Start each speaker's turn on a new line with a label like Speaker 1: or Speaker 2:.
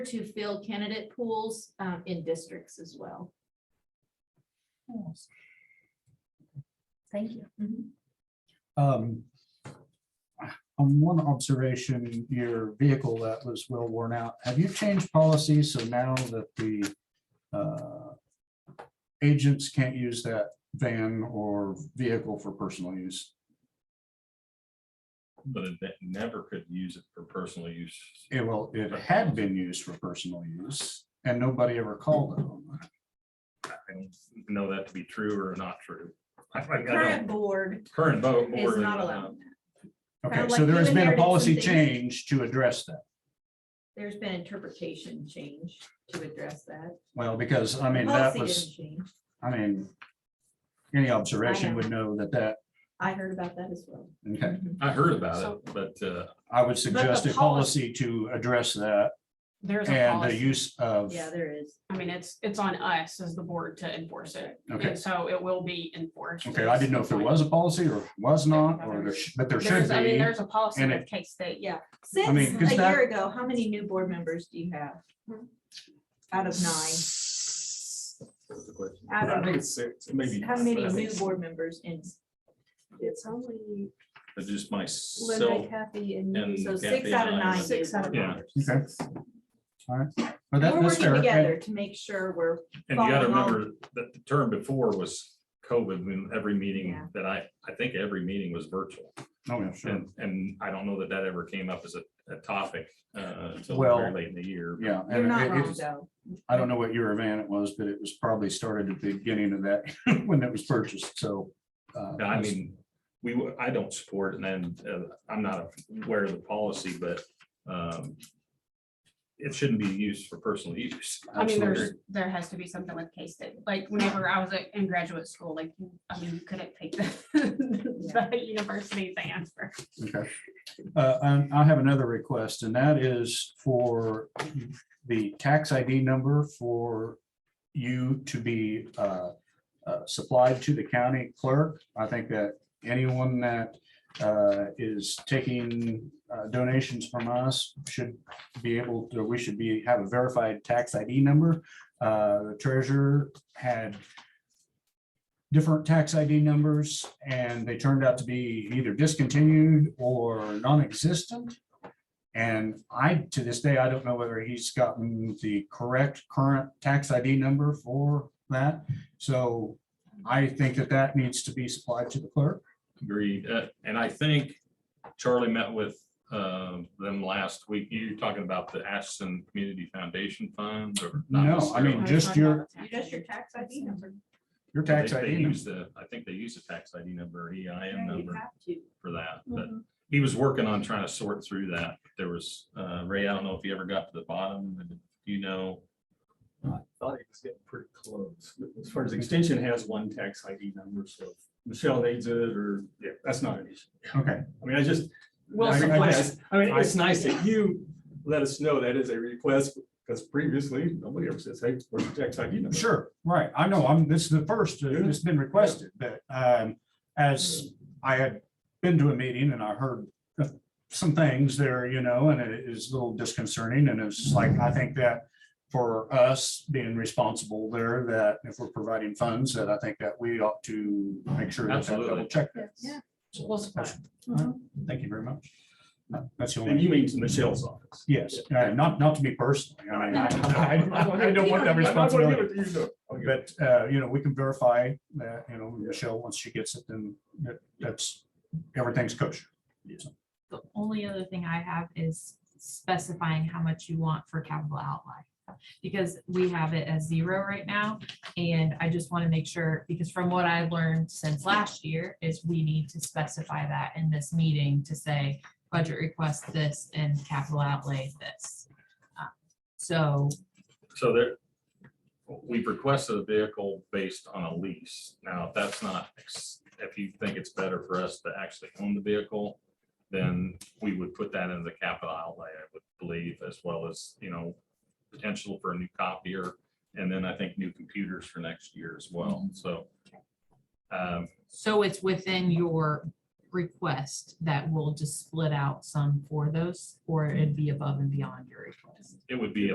Speaker 1: to fill candidate pools um, in districts as well.
Speaker 2: Thank you.
Speaker 3: Mm-hmm. Um. On one observation, your vehicle that was well worn out, have you changed policy so now that the uh, agents can't use that van or vehicle for personal use?
Speaker 4: But it ne- never could use it for personal use.
Speaker 3: It will, Eh, it had been used for personal use and nobody ever called it on that.
Speaker 4: I don't know that to be true or not true. I- I don't-
Speaker 1: Current board
Speaker 4: Current vote. um,
Speaker 1: is not
Speaker 3: uh,
Speaker 1: allowed.
Speaker 3: Okay,
Speaker 1: Kinda
Speaker 3: so
Speaker 1: like
Speaker 3: there
Speaker 1: you
Speaker 3: has been a
Speaker 1: inherited
Speaker 3: policy
Speaker 1: something.
Speaker 3: change to address that.
Speaker 1: There's been interpretation change to address that.
Speaker 3: Well, because I mean, that
Speaker 1: Policy
Speaker 3: was,
Speaker 1: didn't change.
Speaker 3: I mean, any observation would know that that,
Speaker 1: I heard about that as well. Mm-hmm.
Speaker 3: okay.
Speaker 4: I heard about it, but uh,
Speaker 3: I would suggest a
Speaker 5: policy-
Speaker 3: policy to address that
Speaker 5: There's a
Speaker 3: and uh, the
Speaker 5: policy.
Speaker 3: use of,
Speaker 1: Yeah, there is.
Speaker 5: I mean, it's, it's on us as the board to enforce it.
Speaker 3: Okay.
Speaker 5: And so it will be enforced.
Speaker 3: okay, I didn't know if there was a policy or was not, or there, sh- but there should
Speaker 5: There's, I mean,
Speaker 3: be.
Speaker 5: there's a policy
Speaker 3: and
Speaker 5: with
Speaker 3: it-
Speaker 5: K-State.
Speaker 1: Yeah,
Speaker 3: I mean,
Speaker 1: since
Speaker 3: 'cause
Speaker 1: a
Speaker 3: that-
Speaker 1: year ago, how many new board members do you have? Out of nine, I don't know.
Speaker 4: it's six, maybe.
Speaker 1: how many
Speaker 4: I think-
Speaker 1: new board members in?
Speaker 6: It's only
Speaker 4: But just myself,
Speaker 6: Linda, Kathy and
Speaker 4: and
Speaker 6: you.
Speaker 1: So six
Speaker 4: Kathy
Speaker 1: out of
Speaker 4: and I,
Speaker 1: nine.
Speaker 4: but-
Speaker 1: Six out of
Speaker 4: Yeah.
Speaker 1: nine.
Speaker 3: Okay. All right, but that,
Speaker 1: We're
Speaker 3: that's
Speaker 1: working
Speaker 3: fair.
Speaker 1: together
Speaker 3: And-
Speaker 1: to make sure we're
Speaker 4: And you gotta
Speaker 1: Following all-
Speaker 4: remember that the term before was COVID, when every
Speaker 1: Yeah.
Speaker 4: meeting that I, I think every meeting was virtual.
Speaker 3: Oh, yeah, sure.
Speaker 4: And, and I don't know that that ever came up as a, a topic uh, until
Speaker 3: Well,
Speaker 4: very late in the year.
Speaker 3: Yeah.
Speaker 1: You're
Speaker 3: and
Speaker 1: not
Speaker 3: it- it-
Speaker 1: wrong, though.
Speaker 3: I don't know what year of van it was, but it was probably started at the beginning of that when it was purchased, so. uh,
Speaker 4: No, I mean, we, w- I don't support it, and then uh, I'm not aware of the policy, but um, it shouldn't be used for personal use.
Speaker 5: I mean, there's,
Speaker 3: absolutely.
Speaker 5: there has to be something with K-State. Like whenever I was in graduate school, like, you- I mean, you couldn't take the, the university van for
Speaker 3: Okay. Uh, and I have another request, and that is for the tax ID number for you to be uh, uh, supplied to the county clerk. I think that anyone that uh, is taking uh, donations from us should be able to, we should be, have a verified tax ID number. Uh, The treasurer had different tax ID numbers, and they turned out to be either discontinued or non-existent. And I, to this day, I don't know whether he's gotten the correct current tax ID number for that. So I think that that needs to be supplied to the clerk.
Speaker 4: Agreed, Uh, and I think Charlie met with um, them last week. You're talking about the Ashton Community Foundation Fund or? not
Speaker 3: No, I mean,
Speaker 4: necessarily.
Speaker 3: just your,
Speaker 1: Just your tax ID number.
Speaker 3: your
Speaker 4: They-
Speaker 3: tax
Speaker 4: They
Speaker 3: ID. number.
Speaker 4: use the, I think they use the tax ID number, or EIN
Speaker 1: Yeah, You
Speaker 4: number
Speaker 1: have to.
Speaker 4: for that, but he was working on trying to sort through that. There was, uh, Ray, I don't know if you ever got to the bottom, and if you know,
Speaker 7: I thought it was getting pretty close. As far as extension has one tax ID number, so if Michelle needs it or, yeah, that's not an issue.
Speaker 3: Okay,
Speaker 7: I mean, I just,
Speaker 5: Well,
Speaker 7: I
Speaker 3: I- I
Speaker 7: request, I mean, it's nice that you let us know that is a request because previously nobody ever says, hey, where's your tax ID number?
Speaker 3: sure, right. I know, I'm, this is the first, uh, it's been requested, but um, as I had been to a meeting and I heard some things there, you know, and it is a little disconcerting and it's just like, I think that for us being responsible there, that if we're providing funds, that I think that we ought to make sure that that
Speaker 4: Absolutely.
Speaker 3: double check that.
Speaker 1: Yeah.
Speaker 5: We'll supply it.
Speaker 3: Thank you very much. That's the
Speaker 7: And
Speaker 3: only,
Speaker 7: you mean to Michelle's office.
Speaker 3: yes, uh, not, not to me personally. I mean, I, I- I don't want that
Speaker 7: I'm not gonna
Speaker 3: responsibility.
Speaker 7: give it to you, no. Okay.
Speaker 3: But, uh, you know, we can verify that, you know,
Speaker 7: Yeah.
Speaker 3: Michelle, once she gets it, then that- that's, everything's kosher.
Speaker 8: The only other thing I have is specifying how much you want for capital outlay. Because we have it as zero right now, and I just want to make sure, because from what I've learned since last year, is we need to specify that in this meeting to say budget request this and capital outlay this. Uh, So
Speaker 4: so there, we've requested a vehicle based on a lease. Now, if that's not, ex- if you think it's better for us to actually own the vehicle, then we would put that in the capital outlay, I would believe, as well as, you know, potential for a new copier, and then I think new computers for next year as well, so. um,
Speaker 8: So it's within your request that we'll just split out some for those, or it'd be above and beyond your request?
Speaker 4: It would be